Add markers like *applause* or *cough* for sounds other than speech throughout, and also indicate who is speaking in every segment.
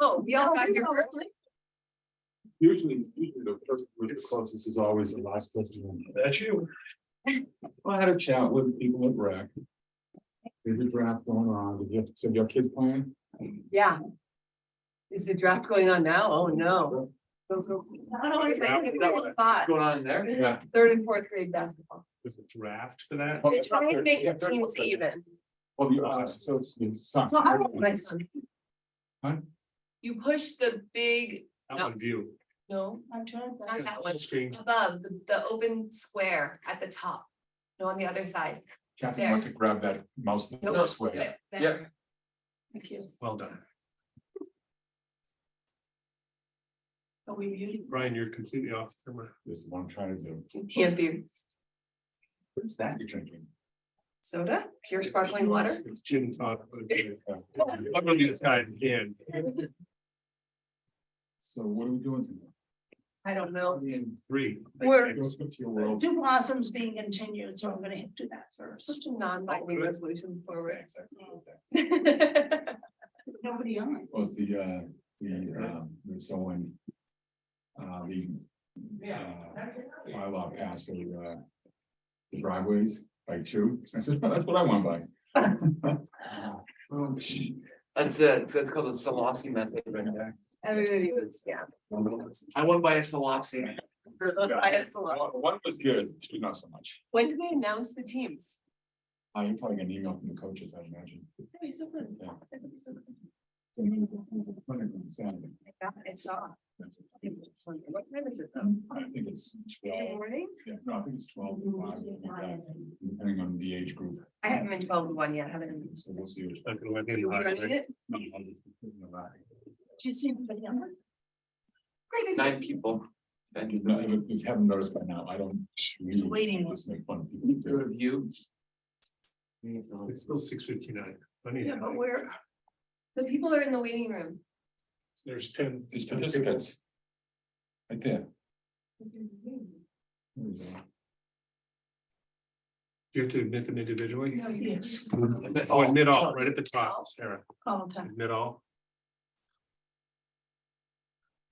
Speaker 1: Oh, we all got here first.
Speaker 2: Usually, usually the person with the closest is always the last person. That's you. Well, I had a chat with people at rec. There's a draft going on, did you, so your kids playing?
Speaker 1: Yeah. Is the draft going on now? Oh, no. Go, go. Spot,
Speaker 2: Going on in there? Yeah.
Speaker 1: Third and fourth grade basketball.
Speaker 2: There's a draft for that?
Speaker 1: They try to make the teams even.
Speaker 2: Oh, you are, so it's.
Speaker 1: So how about my son?
Speaker 2: Huh?
Speaker 1: You push the big,
Speaker 2: one view.
Speaker 1: no, not that one,
Speaker 2: Screen.
Speaker 1: above the, the open square at the top. No, on the other side.
Speaker 2: Kathy wants to grab that mouse the
Speaker 1: Nope.
Speaker 2: first way.
Speaker 1: There.
Speaker 2: Yeah.
Speaker 1: Thank you.
Speaker 2: Well done.
Speaker 1: Are we muted?
Speaker 2: Brian, you're completely off camera. This is what I'm trying to do.
Speaker 1: You can't be
Speaker 2: What's that you're drinking?
Speaker 1: *laughs* soda, pure sparkling water.
Speaker 2: It's gin and tonic, but it's- I'm gonna be this guy again. So what are we doing tonight?
Speaker 1: I don't know.
Speaker 2: In three.
Speaker 3: We're-
Speaker 2: Go speak to your world.
Speaker 3: Two blossoms being continued, so I'm gonna do that first.
Speaker 1: Such a non-binding resolution forward. *laughs*
Speaker 3: Nobody on.
Speaker 2: Was the, uh, the, um, the someone. Uh, the. uh, Bylaw passed for the, uh. the Driveways by two, *laughs* I said, "Oh, that's what I want by. Oh, gee.
Speaker 4: That's it, that's called a Solasi method right there.
Speaker 1: Everybody was, yeah.
Speaker 4: I went by a Solasi.
Speaker 1: Bias a lot.
Speaker 2: One one was good, two not so much,
Speaker 1: When do they announce the teams?
Speaker 2: I am probably gonna email from the coaches, I imagine. Yeah. I
Speaker 1: I saw. What time is it though?
Speaker 2: think it's
Speaker 1: In the
Speaker 2: twelve,
Speaker 1: morning?
Speaker 2: yeah, no, I think it's twelve, to five, something like that, depending on the age group.
Speaker 1: I haven't been twelve to one yet, haven't.
Speaker 2: So we'll see. which-
Speaker 1: you running it?
Speaker 3: Do you see anybody on?
Speaker 1: Great. idea.
Speaker 4: Nine people. Then do
Speaker 2: No,
Speaker 4: the
Speaker 2: If if you haven't noticed by now, I don't.
Speaker 3: It's
Speaker 2: really
Speaker 3: waiting.
Speaker 2: Just make fun of
Speaker 4: peer
Speaker 2: people.
Speaker 4: review.
Speaker 5: It's still six fifty-nine. Funny,
Speaker 3: Yeah, but
Speaker 5: how
Speaker 3: we're,
Speaker 1: The people are in the waiting room.
Speaker 5: there's ten.
Speaker 2: These participants. Right there. There we go.
Speaker 5: You have to admit them individually.
Speaker 1: No, you-
Speaker 3: yes,
Speaker 5: Oh, admit all, right at the top, Sarah.
Speaker 3: all the time.
Speaker 5: Admit all.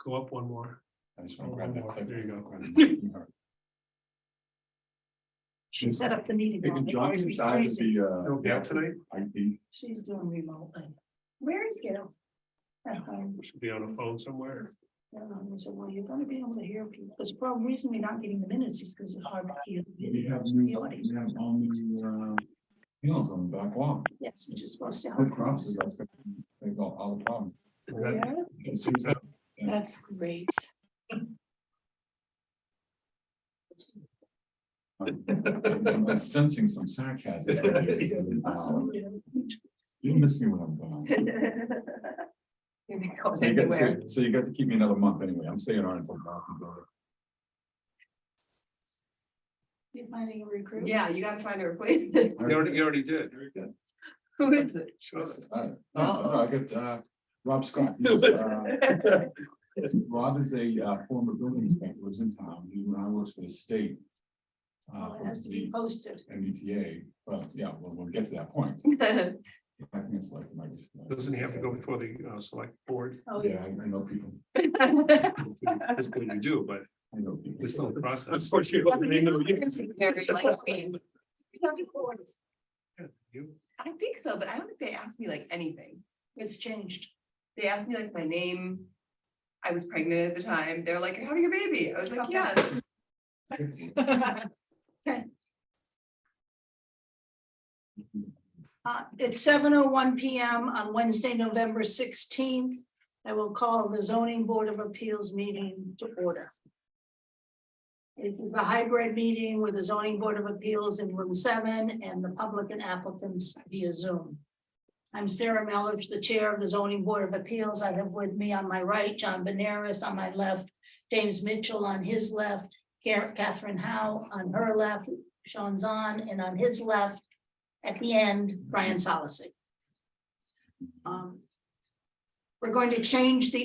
Speaker 5: Go up one more.
Speaker 2: I just want to grab that clip.
Speaker 5: There you
Speaker 2: *laughs*
Speaker 5: go.
Speaker 2: go.
Speaker 3: She set up the meeting.
Speaker 2: Taking
Speaker 3: It drives
Speaker 2: Johnny
Speaker 3: me
Speaker 2: inside
Speaker 3: crazy.
Speaker 5: You'll
Speaker 2: the
Speaker 5: be out tonight.
Speaker 2: uh, IT.
Speaker 3: She's doing remotely. Where is Gail? At home.
Speaker 5: Should be on a phone somewhere.
Speaker 3: And I said, well, you're gonna be able to hear people. This problem, reason we're not getting the minutes is because it's hard to hear. the
Speaker 2: We have
Speaker 3: videos, the
Speaker 2: new,
Speaker 3: audio.
Speaker 2: we have all new, uh, panels on the back wall.
Speaker 3: Yes, which is supposed to
Speaker 2: Good
Speaker 3: help.
Speaker 2: crops, that's the- they got all the problem.
Speaker 5: That-
Speaker 2: It's just that
Speaker 1: That's great.
Speaker 2: I'm I'm sensing some
Speaker 5: *laughs*
Speaker 2: sarcasm. from you. Wow. You miss me when I'm gone.
Speaker 1: You can go
Speaker 2: So you got,
Speaker 1: anywhere.
Speaker 2: so you got to keep me another month anyway, I'm staying on until. March and go.
Speaker 3: You're finding a recruit?
Speaker 1: Yeah, you gotta find a replacement. *laughs*
Speaker 5: You already, you already did.
Speaker 1: Who is it?
Speaker 5: Show us.
Speaker 2: Uh, No, no, I got, uh, Rob Scott. He's, uh, Rob is a uh, former building inspector, lives in town, he now works for the state. Uh,
Speaker 3: Well, Oh, It has
Speaker 2: for
Speaker 3: to be
Speaker 2: the
Speaker 3: posted.
Speaker 2: MBTA, but yeah, well, we'll get to that point. I think it's like, like, uh,
Speaker 5: Doesn't he have to go before the uh, select board?
Speaker 3: Oh,
Speaker 2: Yeah, I I know people,
Speaker 5: That's what you do, but
Speaker 2: I know people.
Speaker 5: it's still a process. *laughs* You-
Speaker 1: Very *laughs* like me. We have to go. I think so, but I don't think they asked me like anything.
Speaker 3: It's changed.
Speaker 1: They asked me like my name. I was pregnant at the time. They're like, you're having a baby. I was like, yes.
Speaker 3: Uh, it's seven oh one PM on Wednesday, November sixteenth. I will call the zoning board of appeals meeting to order. It's a hybrid meeting with the zoning board of appeals in room seven and the public and applicants via Zoom. I'm Sarah Melish, the chair of the zoning board of appeals. I have with me on my right, John Benares on my left, James Mitchell on his left, Ca- Catherine Howe on her left, Sean Zahn, and on his left, at the end, Brian Solacey. Um, We're going to change the